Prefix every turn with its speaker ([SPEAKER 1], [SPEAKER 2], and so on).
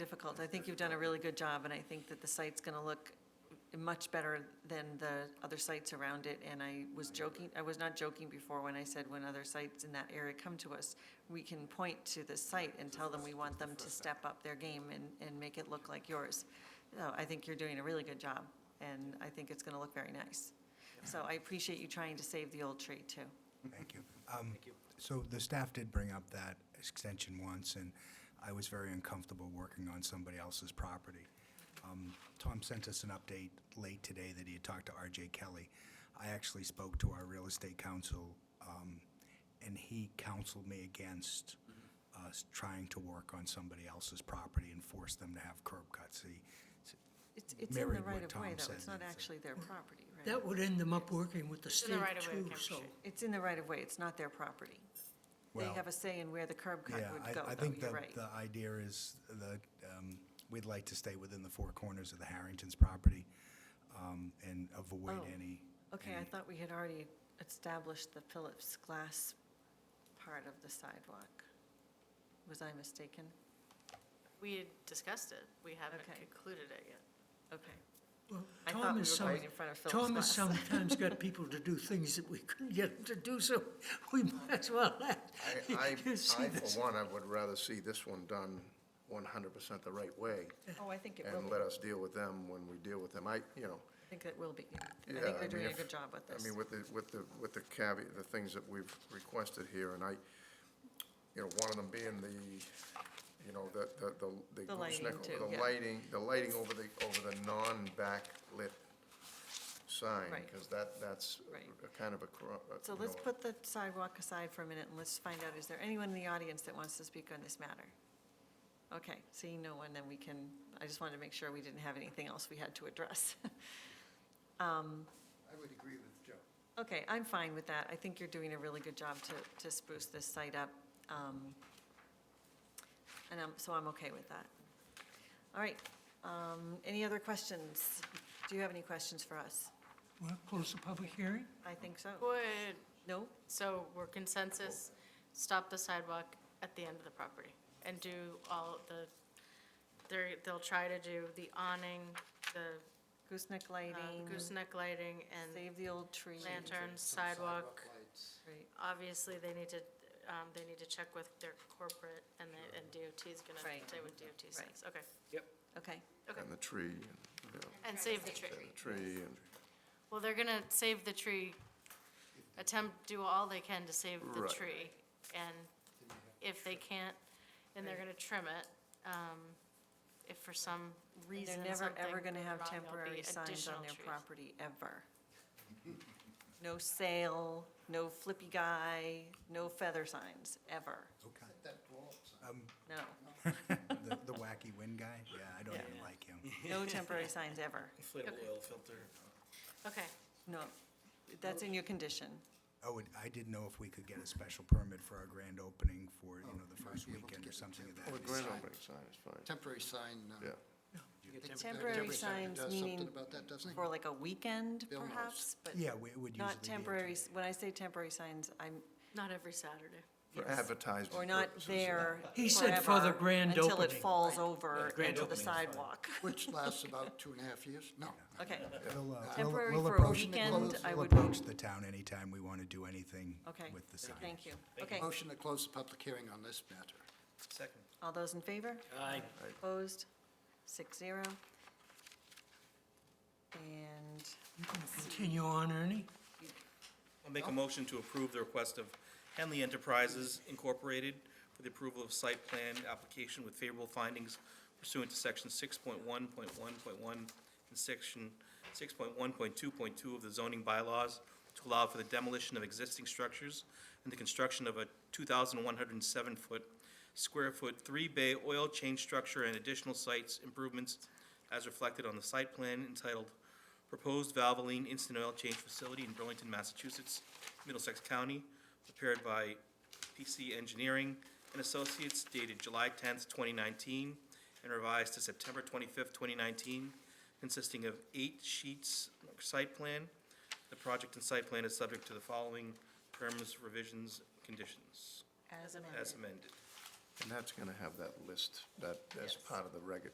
[SPEAKER 1] difficult. I think you've done a really good job, and I think that the site's going to look much better than the other sites around it. And I was joking, I was not joking before when I said when other sites in that area come to us, we can point to the site and tell them we want them to step up their game and, and make it look like yours. So I think you're doing a really good job, and I think it's going to look very nice. So I appreciate you trying to save the old tree, too.
[SPEAKER 2] Thank you. Thank you. So the staff did bring up that extension once, and I was very uncomfortable working on somebody else's property. Um, Tom sent us an update late today that he had talked to RJ Kelly. I actually spoke to our real estate counsel, um, and he counseled me against us trying to work on somebody else's property and force them to have curb cuts. He,
[SPEAKER 1] It's, it's in the
[SPEAKER 2] Mirrored what
[SPEAKER 1] right of way,
[SPEAKER 2] Tom
[SPEAKER 1] though.
[SPEAKER 2] said,
[SPEAKER 1] It's not
[SPEAKER 2] that's it.
[SPEAKER 1] actually their property, right?
[SPEAKER 3] That would end them up working with the
[SPEAKER 4] in the
[SPEAKER 3] state
[SPEAKER 4] right of way of
[SPEAKER 3] too,
[SPEAKER 4] Cambridge
[SPEAKER 3] so.
[SPEAKER 4] Street.
[SPEAKER 1] It's in the right of way, it's not their property. They
[SPEAKER 2] well.
[SPEAKER 1] have a say in where the curb cut
[SPEAKER 2] Yeah,
[SPEAKER 1] would go,
[SPEAKER 2] I, I
[SPEAKER 1] though,
[SPEAKER 2] think
[SPEAKER 1] you're
[SPEAKER 2] that
[SPEAKER 1] right.
[SPEAKER 2] the idea is that, um, we'd like to stay within the four corners of the Harrington's property, um, and avoid
[SPEAKER 1] Oh,
[SPEAKER 2] any.
[SPEAKER 1] Okay, I
[SPEAKER 2] any-
[SPEAKER 1] thought we had already established the Phillips glass part of the sidewalk. Was I mistaken?
[SPEAKER 4] We had discussed it. We haven't
[SPEAKER 1] Okay.
[SPEAKER 4] concluded it yet.
[SPEAKER 1] Okay.
[SPEAKER 3] Well,
[SPEAKER 1] I
[SPEAKER 3] Tom
[SPEAKER 1] thought we
[SPEAKER 3] is
[SPEAKER 1] were
[SPEAKER 3] some-
[SPEAKER 1] going in front of Phillips
[SPEAKER 3] Tom has
[SPEAKER 1] Glass.
[SPEAKER 3] sometimes got people to do things that we couldn't get them to do, so we might as well act.
[SPEAKER 5] I, I,
[SPEAKER 3] You see
[SPEAKER 5] I,
[SPEAKER 3] this?
[SPEAKER 5] for one, I would rather see this one done one hundred percent the right way,
[SPEAKER 1] Oh, I think it will
[SPEAKER 5] and
[SPEAKER 1] be, I
[SPEAKER 5] let us deal with them when we deal with them. I, you know,
[SPEAKER 1] think it will be. I
[SPEAKER 5] yeah.
[SPEAKER 1] think they're doing
[SPEAKER 5] mean,
[SPEAKER 1] a
[SPEAKER 5] if-
[SPEAKER 1] good job with this.
[SPEAKER 5] I mean, with the, with the, with the caveat, the things that we've requested here, and I, you know, one of them being the, you know, the, the, the.
[SPEAKER 1] The lighting
[SPEAKER 5] gooseneck-
[SPEAKER 1] too, yeah.
[SPEAKER 5] The lighting, the lighting over the, over the non-backlit sign,
[SPEAKER 1] Right.
[SPEAKER 5] because that, that's
[SPEAKER 1] Right.
[SPEAKER 5] a kind of a, cro- a,
[SPEAKER 1] So
[SPEAKER 5] you
[SPEAKER 1] let's
[SPEAKER 5] know,
[SPEAKER 1] put the sidewalk aside for a minute and let's find out, is there anyone in the audience that wants to speak on this matter? Okay, seeing no one, then we can, I just wanted to make sure we didn't have anything else we had to address. Um,
[SPEAKER 6] I would agree with Joe.
[SPEAKER 1] Okay, I'm fine with that. I think you're doing a really good job to, to spruce this site up. um, And i so I'm okay with that. All right, um, any other questions? Do you have any questions for us?
[SPEAKER 3] Want to close the public hearing?
[SPEAKER 1] I think so.
[SPEAKER 4] Would,
[SPEAKER 1] No?
[SPEAKER 4] so we're consensus, stop the sidewalk at the end of the property and do all the, they're, they'll try to do the awning, the
[SPEAKER 1] Gooseneck
[SPEAKER 4] uh,
[SPEAKER 1] lighting?
[SPEAKER 4] gooseneck lighting and
[SPEAKER 1] Save the old tree.
[SPEAKER 4] lanterns, sidewalk.
[SPEAKER 1] Right.
[SPEAKER 4] Obviously, they need to, um, they need to check with their corporate and the, and DOT's gonna
[SPEAKER 1] Right.
[SPEAKER 4] say what DOT says. Okay.
[SPEAKER 1] Okay,
[SPEAKER 4] Okay.
[SPEAKER 5] and the tree, and, you know,
[SPEAKER 4] And save the tree.
[SPEAKER 5] and the tree, and.
[SPEAKER 4] Well, they're gonna save the tree, attempt, do all they can to save the
[SPEAKER 5] Right.
[SPEAKER 4] tree. And if they can't, then they're gonna trim it. Um, If for some
[SPEAKER 1] And
[SPEAKER 4] reason
[SPEAKER 1] They're never,
[SPEAKER 4] something
[SPEAKER 1] ever going to
[SPEAKER 4] went
[SPEAKER 1] have
[SPEAKER 4] wrong, there'll be
[SPEAKER 1] temporary signs on
[SPEAKER 4] additional
[SPEAKER 1] their
[SPEAKER 4] trees.
[SPEAKER 1] property, ever. No sail, no flippy guy, no feather signs, ever.
[SPEAKER 2] Okay.
[SPEAKER 6] That blow-up sign.
[SPEAKER 1] No,
[SPEAKER 2] The, the wacky wind guy? Yeah, I don't even like him.
[SPEAKER 1] no temporary signs, ever.
[SPEAKER 7] inflatable oil filter.
[SPEAKER 4] Okay,
[SPEAKER 1] No, that's in your condition.
[SPEAKER 2] Oh, and I didn't know if we could get a special permit for our grand opening for, you know, the first
[SPEAKER 6] Oh, be able to
[SPEAKER 2] weekend or
[SPEAKER 6] get
[SPEAKER 2] something of
[SPEAKER 5] Well,
[SPEAKER 2] that.
[SPEAKER 5] the grand opening sign is fine,
[SPEAKER 6] Temporary sign. uh,
[SPEAKER 5] yeah.
[SPEAKER 6] I think the
[SPEAKER 1] Temporary signs
[SPEAKER 6] does
[SPEAKER 1] meaning
[SPEAKER 6] Something about that, doesn't it?
[SPEAKER 1] For like a weekend,
[SPEAKER 6] Bill knows.
[SPEAKER 1] perhaps, but
[SPEAKER 2] Yeah, we- it would usually be.
[SPEAKER 1] not
[SPEAKER 2] a-
[SPEAKER 1] temporary, s- when I say temporary signs, I'm,
[SPEAKER 4] not every Saturday.
[SPEAKER 5] For
[SPEAKER 1] Yes.
[SPEAKER 5] advertising.
[SPEAKER 1] or not
[SPEAKER 5] purposes,
[SPEAKER 1] there
[SPEAKER 3] He said for the
[SPEAKER 1] forever
[SPEAKER 3] grand
[SPEAKER 1] Until it
[SPEAKER 3] opening.
[SPEAKER 1] falls over
[SPEAKER 7] grand
[SPEAKER 1] into the
[SPEAKER 7] opening is fine.
[SPEAKER 1] sidewalk.
[SPEAKER 6] Which lasts about two and a half years? No. no.
[SPEAKER 1] Okay,
[SPEAKER 2] We'll, uh, we'll-
[SPEAKER 1] Temporary
[SPEAKER 2] we'll
[SPEAKER 1] for a
[SPEAKER 2] approach-
[SPEAKER 1] weekend,
[SPEAKER 2] we'll-
[SPEAKER 1] I
[SPEAKER 2] We'll
[SPEAKER 1] would be-
[SPEAKER 2] approach the town anytime we want to do anything
[SPEAKER 1] okay.
[SPEAKER 2] with the sign.
[SPEAKER 1] Thank you. Okay,
[SPEAKER 6] Motion to close the public hearing on this matter.
[SPEAKER 7] Second.
[SPEAKER 1] all those in favor?
[SPEAKER 7] Aye.
[SPEAKER 1] Opposed? Six zero. And
[SPEAKER 3] You can continue on, Ernie.
[SPEAKER 7] I'll make a motion to approve the request of Henley Enterprises Incorporated for the approval of site plan application with favorable findings pursuant to section six point one point one point one and section six point one point two point two of the zoning bylaws to allow for the demolition of existing structures and the construction of a two thousand one hundred and seven foot square foot three-bay oil change structure and additional sites improvements as reflected on the site plan entitled Proposed Valvoline Instant Oil Change Facility in Burlington, Massachusetts, Middlesex County, prepared by PC Engineering and Associates dated July tenth, twenty nineteen, and revised to September twenty-fifth, twenty nineteen, consisting of eight sheets of site plan. The project and site plan is subject to the following terms, revisions, conditions,
[SPEAKER 1] as
[SPEAKER 7] as
[SPEAKER 1] amended.
[SPEAKER 7] amended.
[SPEAKER 5] And that's gonna have that list, that, as
[SPEAKER 4] Yes.
[SPEAKER 5] part of the reg,